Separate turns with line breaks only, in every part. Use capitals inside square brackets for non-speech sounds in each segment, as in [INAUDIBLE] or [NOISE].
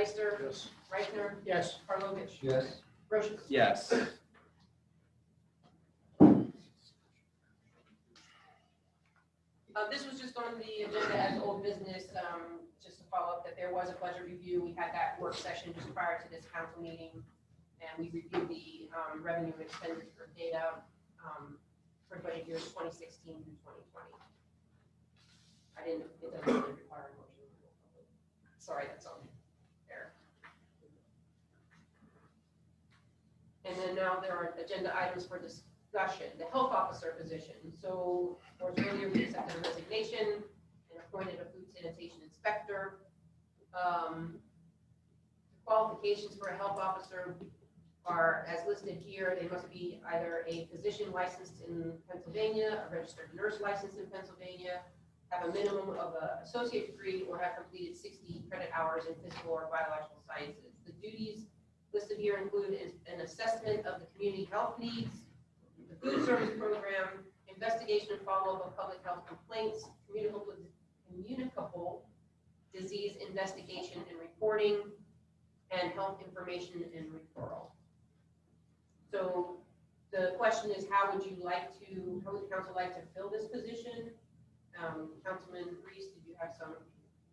Ister,
Yes.
Reichner,
Yes.
Karlovic,
Yes.
Brochus.
Yes.
Uh, this was just on the agenda as old business, um, just to follow up that there was a budget review. We had that work session just prior to this council meeting. And we reviewed the, um, revenue and expenditure data, um, for budget years twenty sixteen through twenty twenty. I didn't, it doesn't really require a motion. Sorry, that's on there. And then now there are agenda items for discussion, the health officer position. So or earlier we accepted a resignation and appointed a food sanitation inspector. Um, Qualifications for a health officer are as listed here. They must be either a physician licensed in Pennsylvania, a registered nurse licensed in Pennsylvania, have a minimum of a associate degree, or have completed sixty credit hours in physical or biological sciences. The duties listed here include is- an assessment of the community health needs, the food service program, investigation and follow-up of public health complaints, communicable, communicable disease investigation and reporting, and health information and referral. So the question is, how would you like to, how would council like to fill this position? Um, Councilman Reese, did you have some?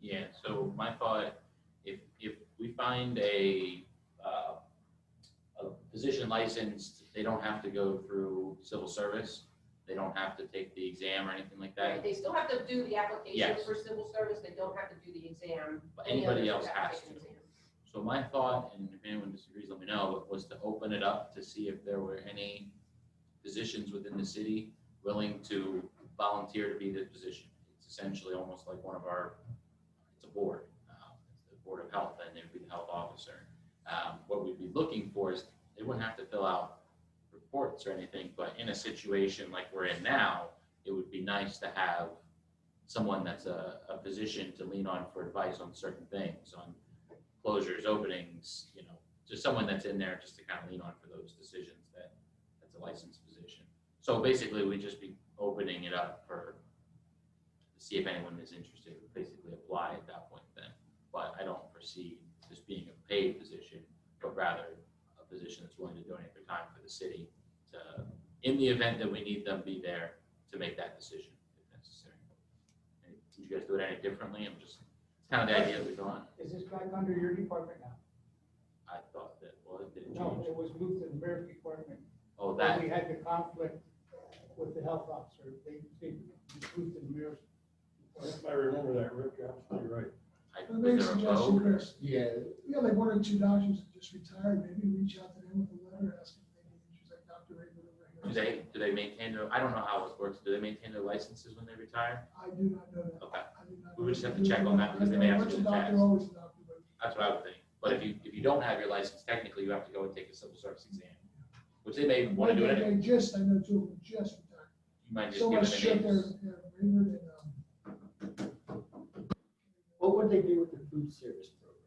Yeah, so my thought, if, if we find a, uh, a position licensed, they don't have to go through civil service. They don't have to take the exam or anything like that.
Right, They still have to do the application
Yes.
for civil service, they don't have to do the exam.
But
Any
Anybody
others
else
have
has
take
to.
an exam.
So my thought, and if anyone disagrees, let me know, but was to open it up to see if there were any positions within the city willing to volunteer to be the position. It's essentially almost like one of our, it's a board, um, it's the Board of Health, and it'd be the health officer. Um, What we'd be looking for is, they wouldn't have to fill out reports or anything, but in a situation like we're in now, it would be nice to have someone that's a, a position to lean on for advice on certain things, on closures, openings, you know, just someone that's in there just to kind of lean on for those decisions that, that's a licensed position. So basically, we'd just be opening it up for, to see if anyone is interested, would basically apply at that point then. But I don't foresee this being a paid position, but rather a position that's willing to donate their time for the city to, in the event that we need them, be there to make that decision if necessary. And Did you guys do it any differently? I'm just, it's kind of the idea that we're going,
Is this back under your department now?
I thought that, well, it didn't
No,
change.
it was moved to the mayor's department.
Oh,
When
that,
We had the conflict with the health officer, they, they moved to the mayor's.
I remember that, Rick, absolutely right.
I,
I made
was there
a
a
suggestion,
vote?
Chris.
Yeah,
We got like one or two doctors that just retired, maybe reach out to them with a letter asking if they need issues like Dr. Raymond
Do
over here.
they, do they maintain their, I don't know how it works, do they maintain their licenses when they retire?
I do not know that.
Okay,
I do not
We
know
would just
that.
have to check on that because they may have to
Once a
do the
doctor,
test.
always a doctor, but
that's what I would think. But if you, if you don't have your license, technically you have to go and take a civil service exam, which they may want to do it.
They-
anyway.
They just, I know two of them just retired.
You might just
So much
give
shit
them the
there,
names.
there, Raymond and, um,
what would they do with the food service program?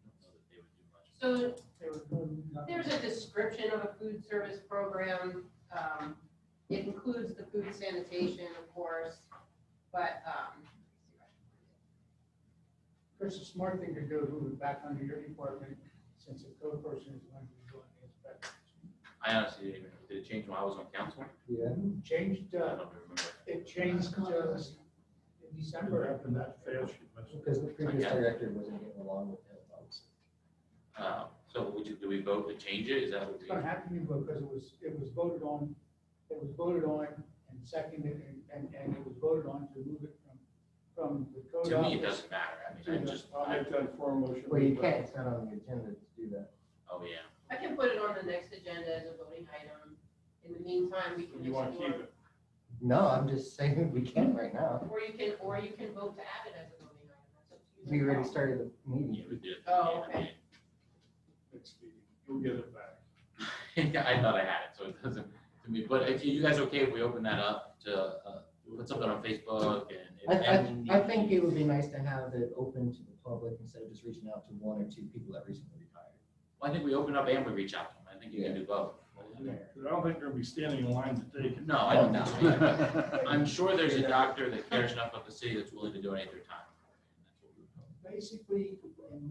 I don't know that they would do much.
So
They were going to-
There's a description of a food service program. Um, It includes the food sanitation, of course, but, um,
Chris, a smart thing to do is move it back under your department since the code person is going to be doing the inspection.
I honestly didn't even, did it change when I was on council?
Yeah.
Changed,
I don't
uh,
remember.
it changed, uh, in December.
Happened that fast, you must-
Because the previous director wasn't getting along with health officer.
Uh, so would you, do we vote to change it? Is that what
It's
we?
gonna have to be voted, because it was, it was voted on, it was voted on and seconded, and, and, and it was voted on to move it from, from the code
To me, it
office.
doesn't matter. I mean, I just,
I'll
I,
make that form motion.
Well, you can't, it's not on the agenda to do that.
oh, yeah.
I can put it on the next agenda as a voting item. In the meantime, we can
You want to keep
explore,
it.
No, I'm just saying [LAUGHS] we can't right now.
or you can, or you can vote to add it as a voting item. That's up to
We
you.
already started the meeting.
You would do it.
Oh,
Yeah, I
okay.
Next meeting. You'll get it back.
[LAUGHS] Yeah, I thought I had it, so it doesn't, to me, but if you guys okay if we open that up to, uh, put something on Facebook
I,
and.
I,
and-
I think it would be nice to have it open to the public instead of just reaching out to one or two people that recently retired.
Well, I think we open up and we reach out to them, I think you can do both.
But I don't think they're gonna be standing in line to take it.
No, I don't
[LAUGHS]
know.
know.
[LAUGHS]
um,
I'm sure there's a doctor that cares enough about the city that's willing to donate their time.
Basically, in